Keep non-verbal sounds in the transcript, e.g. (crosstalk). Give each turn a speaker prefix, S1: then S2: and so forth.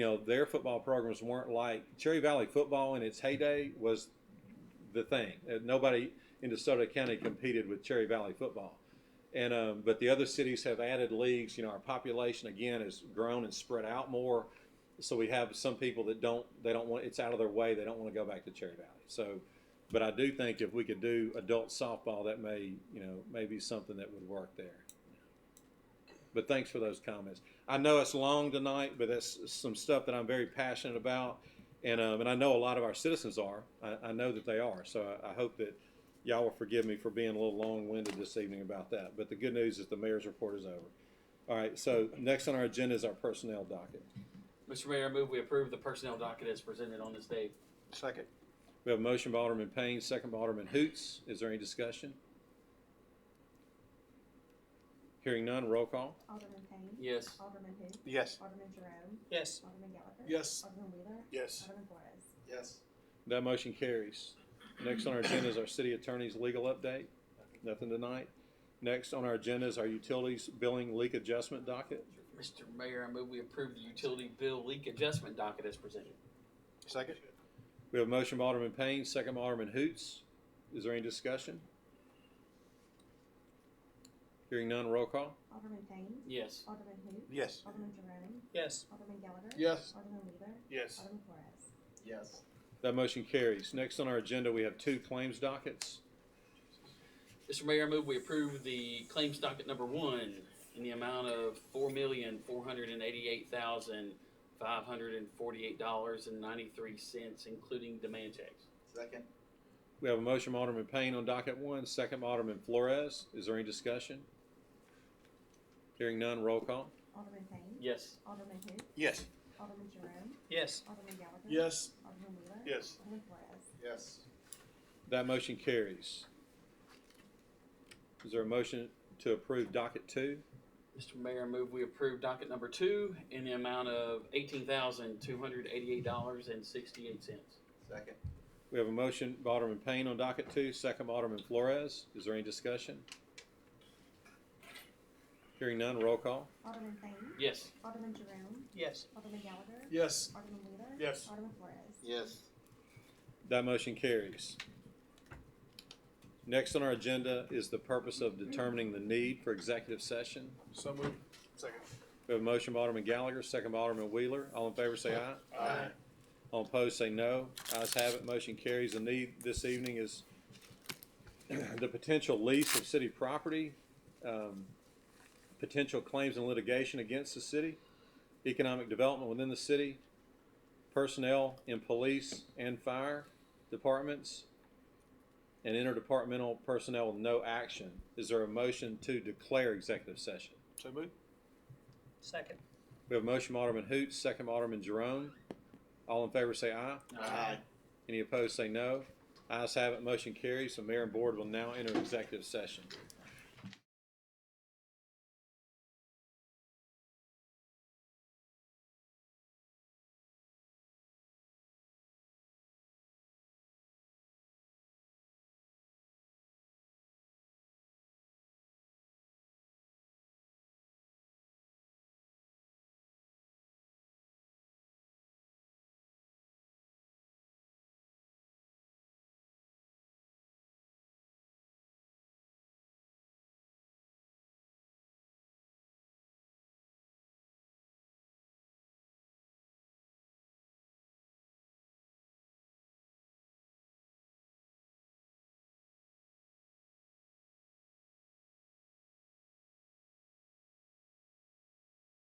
S1: you know, their football programs weren't like Cherry Valley football in its heyday was the thing. Uh, Nobody in DeSoto County competed with Cherry Valley football. And, um, but the other cities have added leagues. You know, our population again has grown and spread out more. So we have some people that don't, they don't want, it's out of their way. They don't want to go back to Cherry Valley. So, but I do think if we could do adult softball, that may, you know, may be something that would work there. But thanks for those comments. I know it's long tonight, but that's some stuff that I'm very passionate about. And, um, and I know a lot of our citizens are. I, I know that they are. So I, I hope that y'all will forgive me for being a little long-winded this evening about that. But the good news is the mayor's report is over. All right, so next on our agenda is our personnel docket.
S2: Mr. Mayor, I move we approve the personnel docket as presented on this day.
S3: Second.
S1: We have a motion by Alderman Payne, second by Alderman Hoots. Is there any discussion? Hearing none, roll call.
S4: Alderman Payne.
S2: Yes.
S4: Alderman who?
S3: Yes.
S4: Alderman Jerome.
S5: Yes.
S4: Alderman Gallagher.
S5: Yes.
S4: Alderman Wheeler.
S3: Yes.
S4: Alderman Flores.
S5: Yes.
S1: That motion carries. Next on our agenda is our city attorney's legal update. Nothing tonight. Next on our agenda is our utilities billing leak adjustment docket.
S2: Mr. Mayor, I move we approve the utility bill leak adjustment docket as presented.
S3: Second.
S1: We have a motion by Alderman Payne, second by Alderman Hoots. Is there any discussion? Hearing none, roll call.
S4: Alderman Payne.
S2: Yes.
S4: Alderman who?
S3: Yes.
S4: Alderman Jerome.
S5: Yes.
S4: Alderman Gallagher.
S5: Yes.
S4: Alderman Wheeler.
S5: Yes.
S4: Alderman Flores.
S5: Yes.
S1: That motion carries. Next on our agenda, we have two claims dockets.
S2: Mr. Mayor, I move we approve the claims docket number one in the amount of four million, four hundred and eighty-eight thousand, five hundred and forty-eight dollars and ninety-three cents, including demand checks.
S5: Second.
S1: We have a motion by Alderman Payne on docket one, second by Alderman Flores. Is there any discussion? Hearing none, roll call.
S4: Alderman Payne.
S2: Yes.
S4: Alderman who?
S3: Yes.
S4: Alderman Jerome.
S5: Yes.
S4: Alderman Gallagher.
S5: Yes.
S4: Alderman Wheeler.
S3: Yes.
S4: Alderman Flores.
S5: Yes.
S1: That motion carries. Is there a motion to approve docket two?
S2: Mr. Mayor, I move we approve docket number two in the amount of eighteen thousand, two hundred eighty-eight dollars and sixty-eight cents.
S5: Second.
S1: We have a motion by Alderman Payne on docket two, second by Alderman Flores. Is there any discussion? Hearing none, roll call.
S4: Alderman Payne.
S2: Yes.
S4: Alderman Jerome.
S5: Yes.
S4: Alderman Gallagher.
S5: Yes.
S4: Alderman Wheeler.
S5: Yes.
S4: Alderman Flores.
S5: Yes.
S1: That motion carries. Next on our agenda is the purpose of determining the need for executive session.
S5: So moved. Second.
S1: We have a motion by Alderman Gallagher, second by Alderman Wheeler. All in favor, say aye.
S5: Aye.
S1: All opposed, say no. Ayes have it, motion carries. The need this evening is (clears throat) the potential lease of city property, um, potential claims and litigation against the city, economic development within the city, personnel in police and fire departments, and interdepartmental personnel with no action. Is there a motion to declare executive session?
S3: So moved.
S5: Second.
S1: We have a motion, by Alderman Hoots, second by Alderman Jerome. All in favor, say aye. Any opposed, say no. Ayes have it, motion carries. The mayor and board will now enter executive session.